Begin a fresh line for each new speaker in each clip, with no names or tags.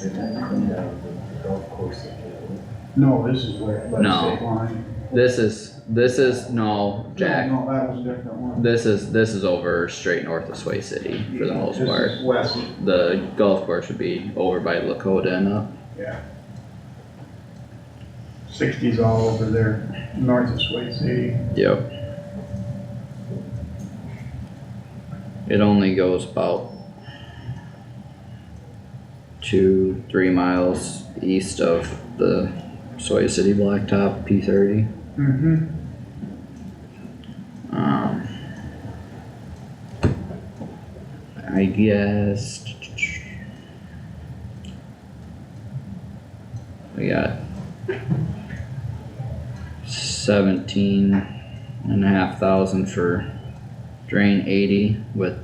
Did that come down to the golf course again?
No, this is where, by
No.
the state line.
This is, this is, no, Jack,
No, that was a different one.
this is, this is over straight north of Sway City for the most
This is
part.
West,
The golf course would be over by Lakota and up.
yeah. Sixties all over there, north of Sway City.
Yep. It only goes about two, three miles east of the Soy City Blacktop P thirty.
Mm-hmm.
Um. I guess. We got seventeen and a half thousand for drain eighty with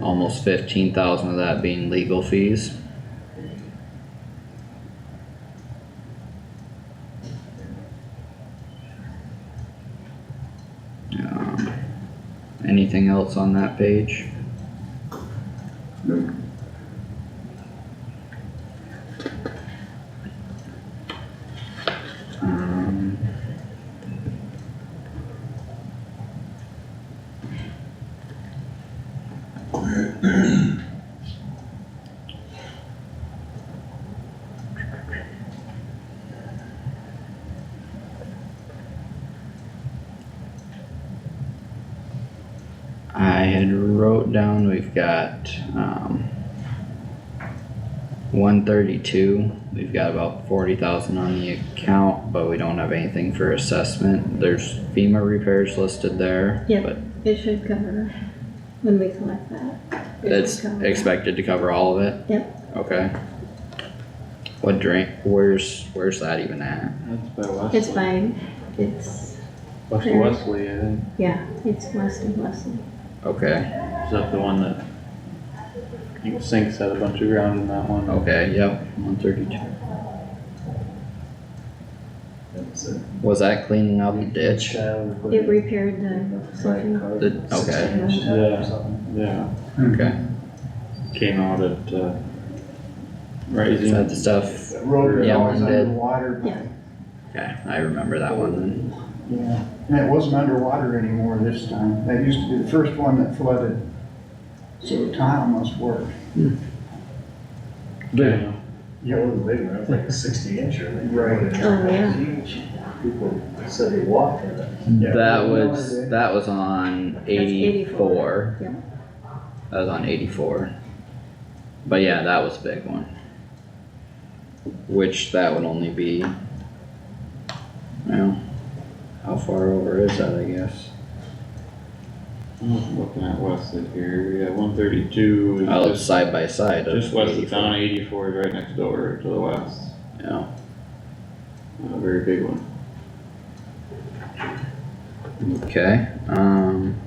almost fifteen thousand of that being legal fees. Um, anything else on that page? Um. I had wrote down we've got um, one thirty-two. We've got about forty thousand on the account, but we don't have anything for assessment. There's FEMA repairs listed there,
Yeah.
but
It should cover when we collect that. It should
it's
cover that.
expected to cover all of it.
Yep,
Okay. What drain? Where's where's that even at?
That's by Wesley.
it's fine. It's,
West
there.
Wesley, I think.
yeah, it's west of Leslie.
Okay.
Is that the one that I think sinks had a bunch of ground in that one?
Okay. Yep. Oh, One thirty-two.
That's a
Was that cleaning out the ditch?
It repaired the,
flat
something.
car.
The- okay.
Yeah, yeah.
Okay.
Came out at, uh,
Is
Rising.
that the stuff?
That road was
Yeah,
always
mine did.
underwater, but,
Yeah.
Okay, I remember that one then.
yeah, and it wasn't underwater anymore this time. That used to be the first one that flooded. So Tom must work.
Yeah.
Yeah, it was big, one, it was like a sixty inch or like.
Right.
Oh, yeah.
People said they walked in it.
Yeah.
That
Yeah.
was, that was on eighty-four.
84, yeah.
That was on eighty-four. But yeah, that was a big one. Which that would only be. Well, how far over is that, I guess?
I'm Looking at Wesley here, yeah, one thirty-two is
Oh, it's
just,
side by side of
just west of
84,
town, eighty-four is right next door to the west.
Yeah,
A very big one.
okay, um.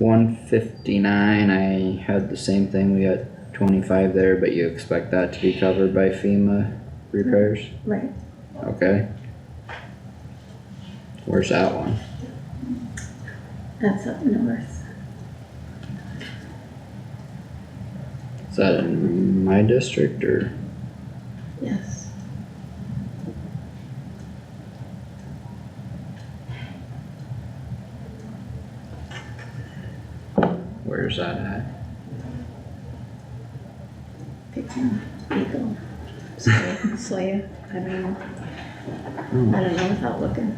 One fifty-nine, I had the same thing, we got twenty-five there, but you expect that to be covered by FEMA repairs?
Right,
Okay. Where's that one?
that's up north.
Is that in my district or?
Yes.
Where's that at?
Pick one. Eagle. Soya, Soya, I don't know. I don't know without looking.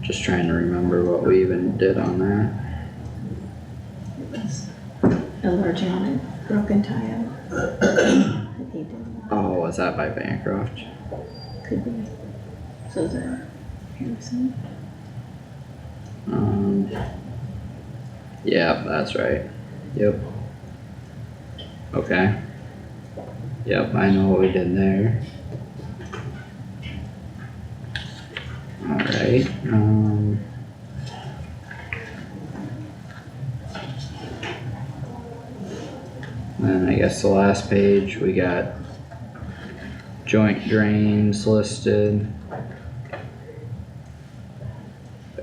Just trying to remember what we even did on that.
It was a large unit, broken tile. That he did.
Oh, was that by Bancroft?
Could be. So is that Harrison?
Um. Yeah, that's right. Yep. Okay. Yep, I know what we did there. Alright, um. Then I guess the last page, we got joint drains listed.